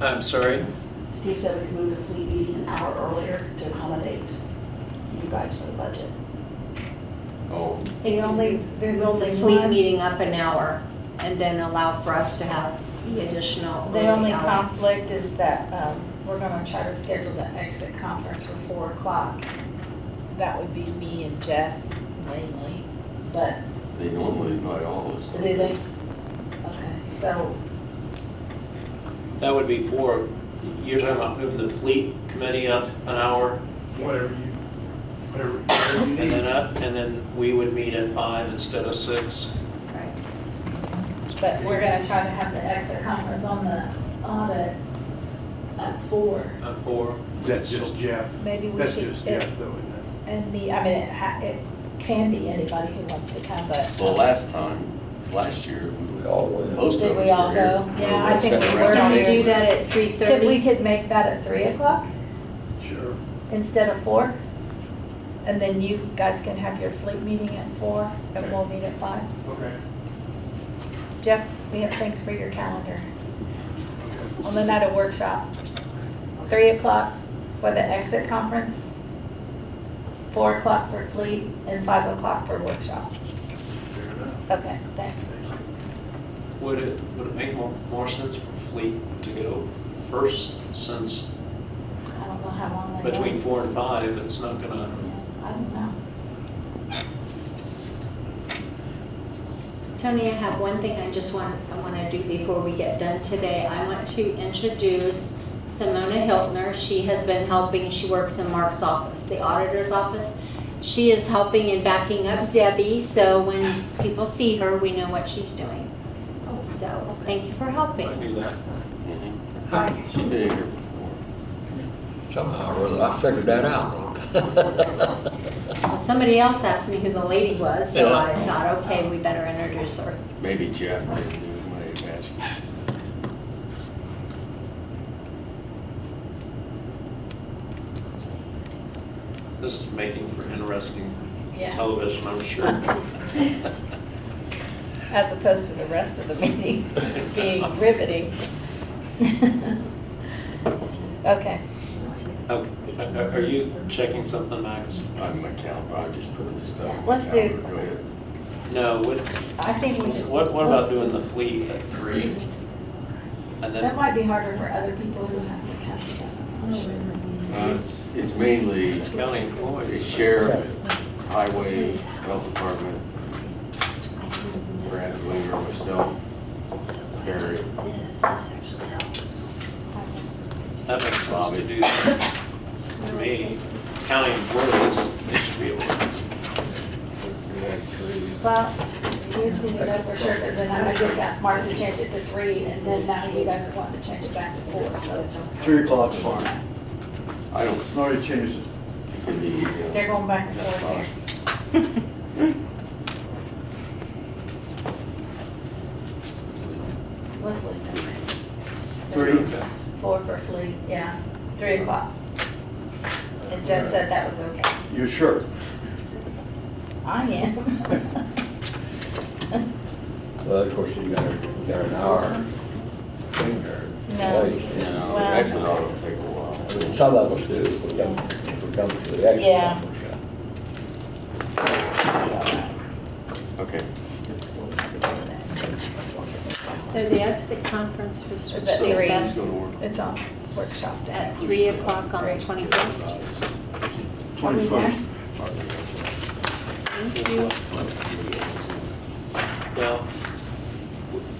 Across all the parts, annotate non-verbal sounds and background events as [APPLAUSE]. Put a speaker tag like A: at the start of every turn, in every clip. A: I'm sorry?
B: Steve said we could move the fleet meeting an hour earlier to accommodate you guys for the budget.
C: Oh,
D: The only, there's only
E: The fleet
D: one,
E: meeting up an hour and then allow for us to have the additional.
D: the only
E: hour.
D: conflict is that um, we're gonna try to schedule the exit conference for four o'clock. That would be me and Jeff mainly, but
C: they normally invite all of us.
D: do
C: don't
D: they? Okay, so
A: That would be four. You're talking about moving the fleet committee up an hour
F: whatever you, whatever, whatever you
A: and then
F: need.
A: up, and then we would meet at five instead of six.
D: Right. But we're gonna try to have the exit conference on the audit at four.
A: At four.
F: That's just Jeff,
D: Maybe we
F: that's
D: should,
F: just
D: it-
F: Jeff though, isn't it?
D: and the, I mean, it ha- it can be anybody who wants to come, but
C: Well, last time, last year, we were all, most
D: Did
C: of us were here.
D: we all go?
C: We
D: Yeah,
C: were
D: I think
C: sitting
D: we
C: around.
D: were
E: Can we
D: here.
E: do that at three
D: could, we
E: thirty?
D: could make that at three o'clock
A: Sure.
D: instead of four? And then you guys can have your fleet meeting at four and we'll meet at five.
F: Okay,
D: Jeff, we have thanks for your calendar
F: okay.
D: on the night of workshop. Three o'clock for the exit conference, four o'clock for fleet, and five o'clock for workshop.
F: Fair enough.
D: Okay, thanks.
A: Would it, would it make more, more sense for fleet to go first since
D: I don't know how long they go.
A: between four and five, it's not gonna,
D: I don't know.
E: Tony, I have one thing I just want, I want to do before we get done today. I want to introduce Simona Hiltner. She has been helping, she works in Mark's office, the auditor's office. She is helping and backing up Debbie, so when people see her, we know what she's doing. So, thank you for helping.
A: I knew that.
C: Mhm. She's been here before.
G: Somehow or other, I figured that out. [LAUGHS]
E: Well, somebody else asked me who the lady was, so I thought, okay, we better introduce her.
C: Maybe Jeff didn't do it, might have asked you.
A: This is making for interesting
D: Yeah.
A: television, I'm sure.
D: [LAUGHS] As opposed to the rest of the meeting being riveting. [LAUGHS] Okay.
A: Okay, Are- are you checking something, Max?
C: I'm a count, I just put this stuff.
D: Yeah,
C: on
D: let's
C: the
D: do-
C: calendar. Go ahead.
A: No, what,
D: I think we should.
A: what, what about doing the fleet at three? And
D: That
A: then,
D: might be harder for other people who have to come together.
C: Uh, It's, it's mainly
A: it's county
C: it's
A: employees.
C: sheriff, highway, health department, Brad Winger, myself, Barry,
A: That makes sense to do that. To me, it's county employees, they should be able to.
C: we had three.
D: Well, we just need to know for sure, because then I would just asked Mark to change it to three, and then now you guys want to change it back to four, so.
H: Three o'clock's fine.
C: I don't,
H: It's
C: s-
H: already changed it.
C: it could be, uh,
D: They're going back and
C: that's
D: forth
C: fine.
D: here. Let's leave
H: Three,
D: it. Four for fleet, yeah, three o'clock. And Jeff said that was okay.
H: you sure?
D: I [LAUGHS] am.
G: Well, of course, you got, you got an hour in there.
D: No.
G: Wait.
C: No,
D: Well-
C: exit auto take a
G: I mean,
C: while.
G: some of us do, if we come, if we come to the exit.
D: Yeah.
C: Okay,
E: So the exit conference was
D: Is
C: so
D: that three?
C: who's
E: at,
C: gonna work?
D: It's on workshop day.
E: at three o'clock on the twenty-first.
H: Twenty-first.
E: Thank you.
A: Now,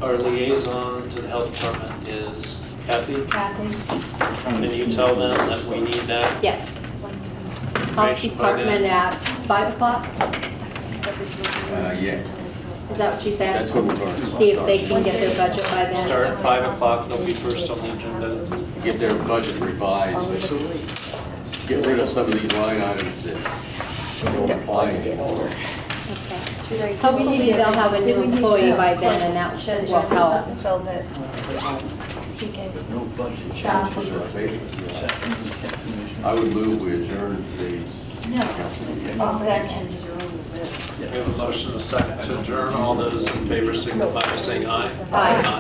A: our liaison to the health department is Kathy.
D: Kathy?
A: Can you tell them that we need that?
E: Yes. Health
A: Information by then.
E: department at five o'clock,
C: Uh, yeah,
E: is that what you said?
C: that's what we're gonna.
E: See if they
C: start.
E: can get their budget by then.
A: Start at five o'clock, they'll be first on the agenda.
C: Get their budget revised, get rid of some of these line items that don't apply anymore.
E: Okay.
B: Should I-
E: Hopefully they'll have a
D: Do
E: new
D: we need
E: employee
D: to
E: by then and
D: close
E: that
D: the
E: will
D: agenda or something
E: help.
D: So that he can
H: No budget
D: stop.
H: changes or abatements.
C: I would move we adjourn today's. council meeting.
D: I'll second.
A: We have a motion, a second to adjourn. All those in favor signify by saying aye.
E: Aye.